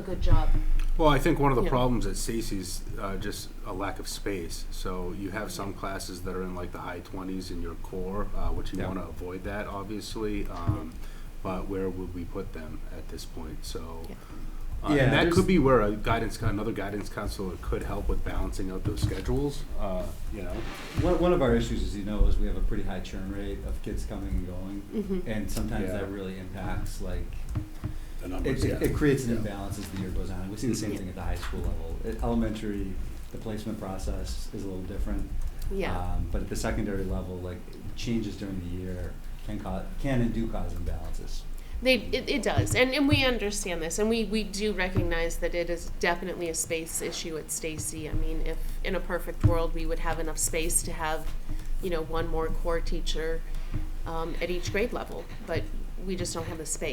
good job. Well, I think one of the Yeah. problems at Stacy's, uh, just a lack of space. So you have some classes that are in like the high twenties in your core, uh, which you Yeah. wanna avoid that, obviously. Um, but where would we put them at this point? So. Yeah. uh, and that Yeah, there's- could be where a guidance, coun- another guidance counselor could help with balancing out those schedules, uh, you know? One, one of our issues, as you know, is we have a pretty high churn rate of kids coming and going, Mhm. and sometimes Yeah. that really impacts like The it, numbers, it, it yeah. Mm-hmm. creates an imbalance as the year goes on. We see the same Yeah. thing at the high school level. At elementary, the placement process is a little different, Yeah, um, but at the secondary level, like changes during the year can cause can and do cause imbalances. they it, it does, and and we understand this, and we we do recognize that it is definitely a space issue at Stacy. I mean, if in a perfect world we would have enough space to have, you know, one more core teacher um, at each grade level, but we just don't have the space.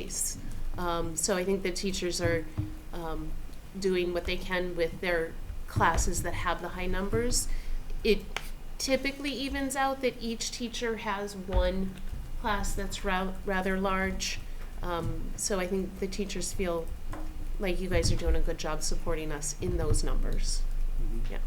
Um, so I think the teachers are um, doing what they can with their classes that have the high numbers. It typically evens out that each teacher has one class that's ra- rather large. Um, so I think the teachers feel like you guys are doing a good job supporting us in those numbers. Mm-hmm. Yeah.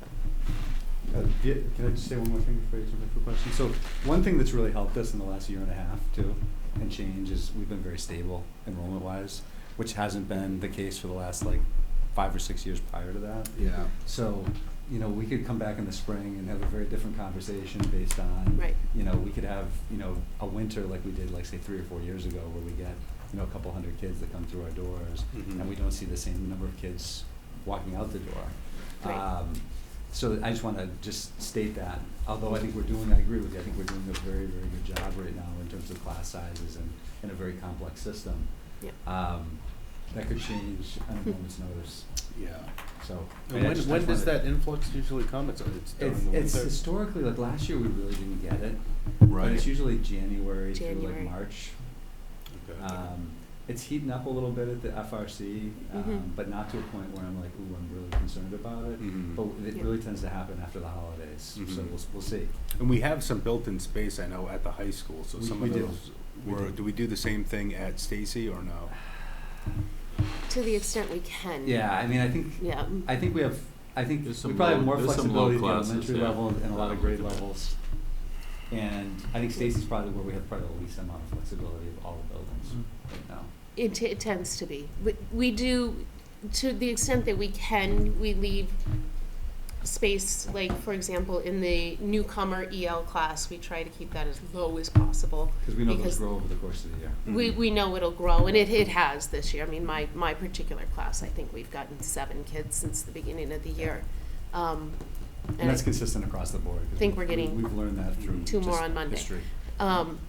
So, Uh, yeah, can I just say one more thing before you jump in for questions? So one thing that's really helped us in the last year and a half too, and change is we've been very stable enrollment wise, which hasn't been the case for the last like five or six years prior to that. Yeah. So, you know, we could come back in the spring and have a very different conversation based on, Right. you know, we could have, you know, a winter like we did, like say three or four years ago, where we get, you know, a couple hundred kids that come through our doors, Mhm. and we don't see the same number of kids walking out the door. Right. Um, so I just want to just state that, although I think we're doing, I agree with you, I think we're doing a very, very good job right now in terms of class sizes and, and a very complex system. yeah. Hmm. Um, that could change on a moment's notice, Yeah. so. I And mean, I when, just- I when just does wanted- that influx usually come? It's, it's during It's, the it's winter? historically, like last year, we really didn't get it. But Right. it's usually January through like January. March. Okay. Um, it's heating up a little bit at the FRC, um, Mhm. but not to a point where I'm like, ooh, I'm really concerned about it. Mhm. But it Yeah. really tends to happen after the holidays, so Mhm. Mm-hmm. we'll, s- we'll see. And we have some built-in space, I know, at the high school, so We- some we of do. those We were, do. do we do the same thing at Stacy or no? To the extent we can. Yeah, I mean, I think, Yeah. I think we have, I think There's we some probably low- have more there's some flexibility at low the classes, elementary yeah, level and a lot that of I'm grade looking at. levels. And I think Stacy's probably where we have probably the least amount of flexibility of all the buildings Mm-hmm. right now. It, t- it tends to be. We, we do, to the extent that we can, we leave space, like, for example, in the newcomer EL class, we try to keep that as low as possible. Because we know those Because- grow over the course of the year. We, we know it'll grow, and it, it has this year. I mean, my, my particular class, I think we've gotten seven kids since the beginning of the year. Um, And that's I- consistent across the board. 'cause think we're we- getting We've learned that through two more just on Monday. history. Um,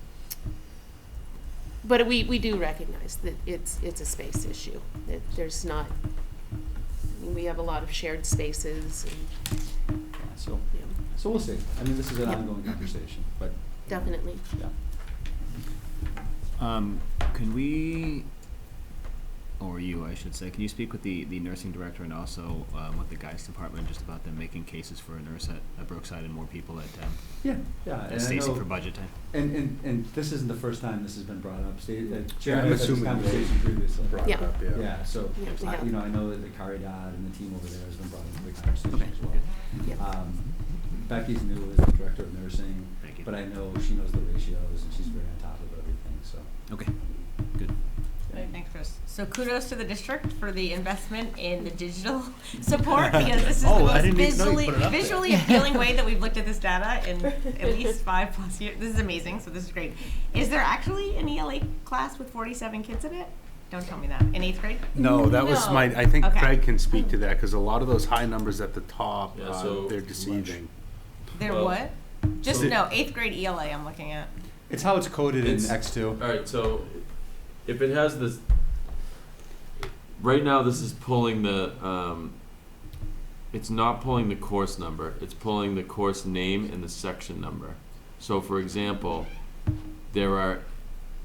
but we, we do recognize that it's, it's a space issue, that there's not, I mean, we have a lot of shared spaces and, Yeah, so, you know, so we'll see. I mean, this is an Yep. ongoing conversation, but. definitely. Yeah. Um, can we, or you, I should say, can you speak with the, the nursing director and also um, with the guys department just about them making cases for a nurse at, at Brookside and more people at, um, Yeah, yeah. at and I Stacy know- for budget time? And, and, and this isn't the first time this has been brought up. Sta- uh, Yeah, Chairman I'm had this assuming they conversation previously. brought it Yeah. up, yeah. Yeah, so, Yeah, we I- have. you know, I know that the Carrie Dodd and the team over there has been brought into the conversation Okay, as well. Yep. Um, Becky's new as the director of nursing. Thank you. But I know she knows the ratios and she's very on top of everything, so. Okay, good. Right, thanks, Chris. So kudos to the district for the investment in the digital support because this is Oh, the I most didn't even know you visually, put it up there. visually appealing way that we've looked at this data in at least five plus years. This is amazing, so this is great. Is there actually an ELA class with 47 kids in it? Don't tell me that. In eighth grade? No, that was my, I think Okay. Craig can speak to that, because a lot of those high numbers at the top, Yeah, uh, so they're much. deceiving. There Well, what? Just so- no, eighth grade ELA I'm looking at. It's how it's coded in It's- X two. All right, so if it has this, right now this is pulling the, um, it's not pulling the course number. It's pulling the course name and the section number. So, for example, there are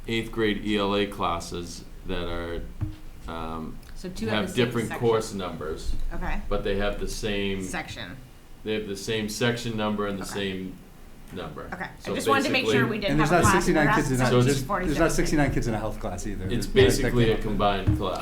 eighth grade ELA classes that are um, So two have the same different section. course Mm. numbers, Okay. but they have the same Section. they have the same section number and the Okay. same number. Okay, I So just wanted to make sure basically- we And didn't there's have not a class. where sixty-nine that's kids in, a- So it's- there's, there's 47 not kids. sixty-nine kids in a health class either. It's There's- that- that basically came a up with- combined class.